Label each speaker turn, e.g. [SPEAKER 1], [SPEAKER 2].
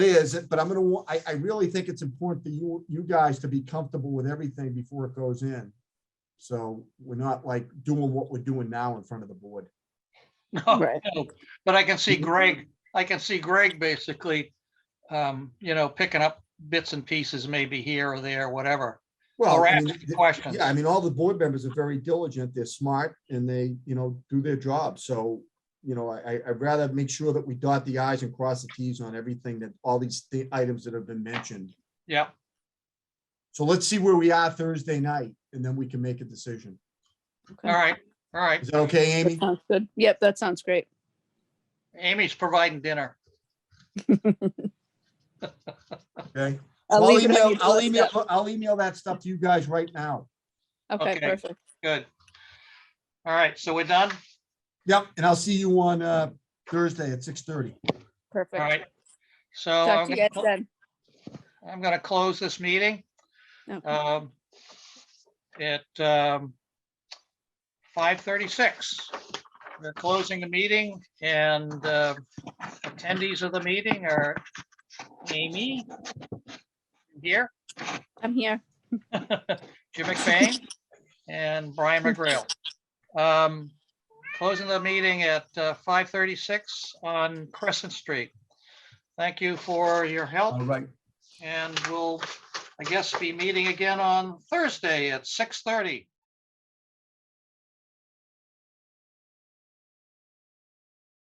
[SPEAKER 1] is, but I'm gonna, wa- I, I really think it's important for you, you guys to be comfortable with everything before it goes in. So we're not like doing what we're doing now in front of the board.
[SPEAKER 2] No,
[SPEAKER 3] Right.
[SPEAKER 2] no, but I can see Greg, I can see Greg basically, um, you know, picking up bits and pieces maybe here or there, whatever.
[SPEAKER 1] Well,
[SPEAKER 2] Or
[SPEAKER 1] I mean,
[SPEAKER 2] asking questions.
[SPEAKER 1] yeah, I mean, all the board members are very diligent, they're smart, and they, you know, do their job, so, you know, I, I- I'd rather make sure that we dot the i's and cross the t's on everything that, all these thi- items that have been mentioned.
[SPEAKER 2] Yeah,
[SPEAKER 1] So let's see where we are Thursday night, and then we can make a decision.
[SPEAKER 2] all right, all right.
[SPEAKER 1] Is that okay,
[SPEAKER 3] That
[SPEAKER 1] Amy?
[SPEAKER 3] sounds good. Yep, that sounds great.
[SPEAKER 2] Amy's providing dinner.
[SPEAKER 1] Okay.
[SPEAKER 3] I'll
[SPEAKER 1] I'll
[SPEAKER 3] leave it on
[SPEAKER 1] email,
[SPEAKER 3] you to
[SPEAKER 1] I'll
[SPEAKER 3] us
[SPEAKER 1] email, I'll email that stuff to you guys right now.
[SPEAKER 3] now. Okay,
[SPEAKER 2] Okay.
[SPEAKER 3] perfect.
[SPEAKER 2] Good. All right, so we're done?
[SPEAKER 1] Yep, and I'll see you on uh Thursday at six thirty.
[SPEAKER 2] All
[SPEAKER 3] Perfect.
[SPEAKER 2] right. So
[SPEAKER 3] Talk
[SPEAKER 2] I'm
[SPEAKER 3] to you guys
[SPEAKER 2] gonna-
[SPEAKER 3] then.
[SPEAKER 2] I'm going to close this meeting.
[SPEAKER 3] Okay.
[SPEAKER 2] um, At um, 5:36. We're closing the meeting and uh, attendees of the meeting are Amy here,
[SPEAKER 3] I'm here.
[SPEAKER 2] Jim McBain, and Brian McGrail. Um, Closing the meeting at uh, 5:36 on Crescent Street. Thank you for your help.
[SPEAKER 1] All right.
[SPEAKER 2] And we'll, I guess, be meeting again on Thursday at six thirty.